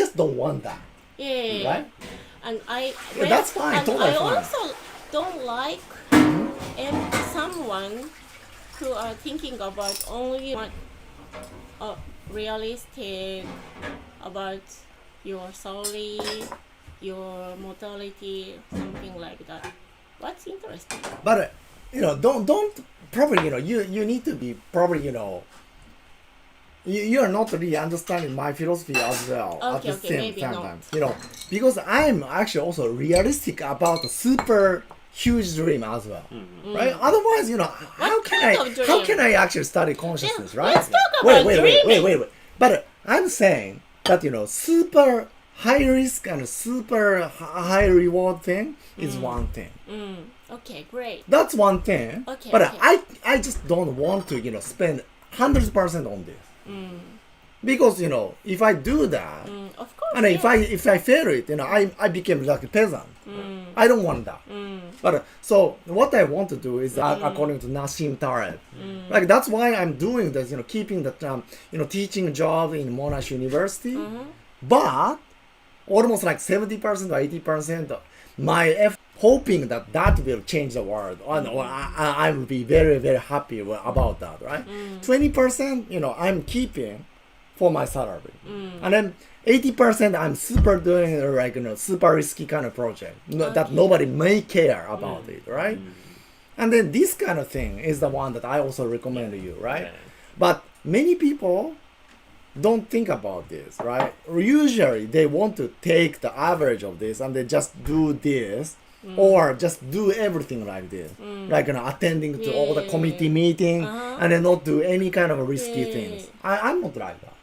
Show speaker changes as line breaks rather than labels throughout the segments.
just don't want that,
Yeah, yeah, yeah.
right?
And I
Yeah, that's fine,
And
totally
I
fine.
also don't like
Mm-hmm.
em- someone who are thinking about only one, uh, realistic about your salary, your mortality, something like that. What's interesting?
But uh, you know, don't don't probably you know you you need to be probably you know. You, you are not really understanding my philosophy as well at
Okay,
the
okay,
same
maybe
time.
not.
time. You know, because I'm actually also realistic about the super huge dream as well, right? Otherwise, you know, how can
Mm. kind
I
of
how
dream?
can I actually study consciousness,
Yeah,
right?
let's talk
wait, wait,
about
wait, wait,
dreaming.
wait, wait. But uh, I'm saying that you know, super high risk and super h- high reward thing is one thing.
Mm, okay, great.
That's one thing.
Okay,
but
okay.
I I just don't want to you know spend hundred percent on this because you know if I do that
Mm, of course.
and if
yeah.
I if I fail it you know I I became like a peasant.
Mm.
I don't want that. But uh, so what I want to do is uh,
Mm.
according to Nassim Taleb, like that's why I'm doing this. You know, keeping the um, you know teaching job in Monash University,
Mm-hmm.
but almost like seventy percent or eighty percent my effort hoping that that will change the world and or I, I I will be very very happy wi- about that right 20% you know i'm keeping for my salary and then 80% i'm super doing uh, like you know super risky kind of project no, that nobody may care about it right and then this kind of thing is the one that i also recommend to you right
Yeah.
but many people don't think about this, right? Usually they want to take the average of this and they just do this
Mm.
or just do everything like this, like you know, attending to all the
Yeah.
committee meeting
Uh-huh.
and then not do any kind of risky
Yeah.
things. I, I'm not like that.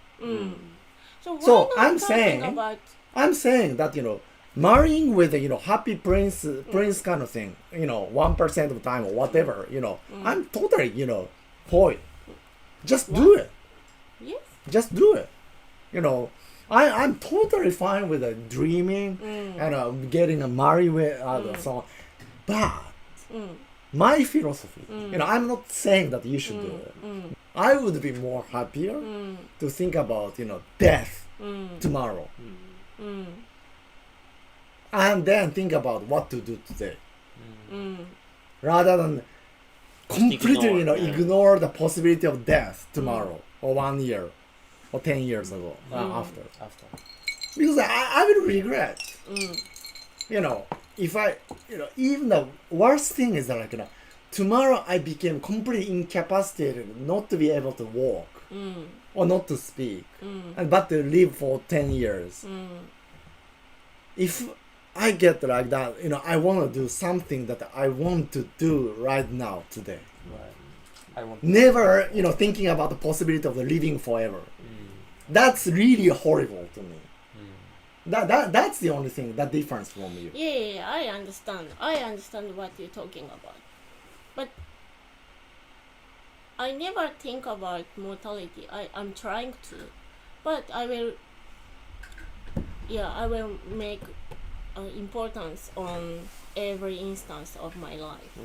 so, why
so
not
I'm
talking
saying-
about
I'm saying that you know, marrying with you know happy prince
Mm.
prince kind of thing, you know, one percent of time or whatever, you know,
Mm.
I'm totally you know for it. Just do it.
yes.
just do it. You know, I I'm totally fine with uh, dreaming
Mm.
and uh, getting a married with uh, so on, but my philosophy, you know, I'm not saying that you should do it. I would be more happier to think about you know death tomorrow, and then think about what to do today, rather than completely
ignore,
you know
yeah.
ignore the possibility of death tomorrow or one year or 10 years ago uh, after
After.
because I, I will regret you know if i you know even the worst thing is that like you know, tomorrow i became completely incapacitated not to be able to walk or not to speak and but to live for 10 years if i get like that you know i want to do something that i want to do right now today
Right. I want.
never you know thinking about the possibility of living forever that's really horrible to me that, that that's the only thing that difference from you
Yeah, yeah, yeah, I understand. I understand what you're talking about. But I never think about mortality. I, I'm trying to. But I will yeah, I will make uh, importance on every instance of my life.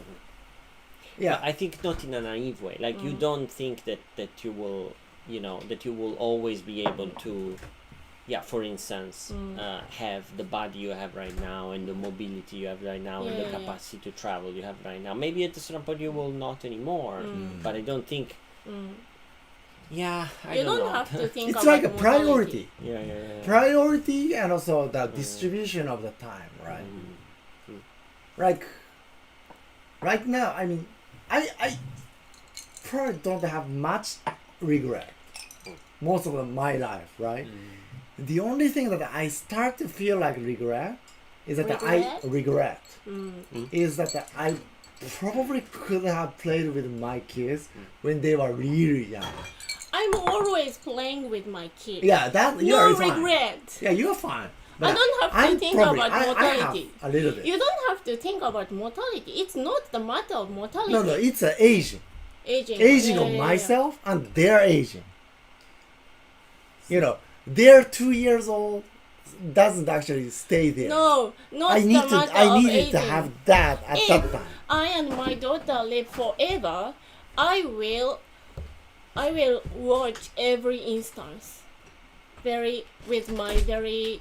yeah
I think not in a naive way. Like
Mm.
you don't think that that you will, you know, that you will always be able to, yeah. For instance,
Mm.
uh, have the body you have right now and the mobility you have right now and
Yeah,
the
yeah, yeah.
capacity to travel you have right now. Maybe at a certain point you will not anymore. But I don't think.
Mm.
Yeah, I
You
don't,
don't,
know.
have to think
it's
about
like a
mortality.
priority
yeah, yeah, yeah, yeah.
priority and also the distribution of the time
Mm.
right
Um,
like right now i mean i i probably don't have much regret most of my life right the only thing that i start to feel like regret is that i
Regret?
regret
Mm.
is that i probably could have played with my kids when they were really young
I'm always playing with my kids.
yeah that
No
you're fine.
regret.
yeah you're fine
I don't have to
I'm
think
probably-
about
I- I have
mortality.
a little bit
You don't have to think about mortality. It's not the matter of mortality.
No, no, it's uh, aging.
Aging.
Aging
Yeah,
of
yeah, yeah.
myself and their aging. You know, they're two years old doesn't actually stay there.
No, not
I
the
need to.
matter
I
of
needed
aging.
to have that at
if
that time.
I and my daughter live forever, I will, I will watch every instance. very with my very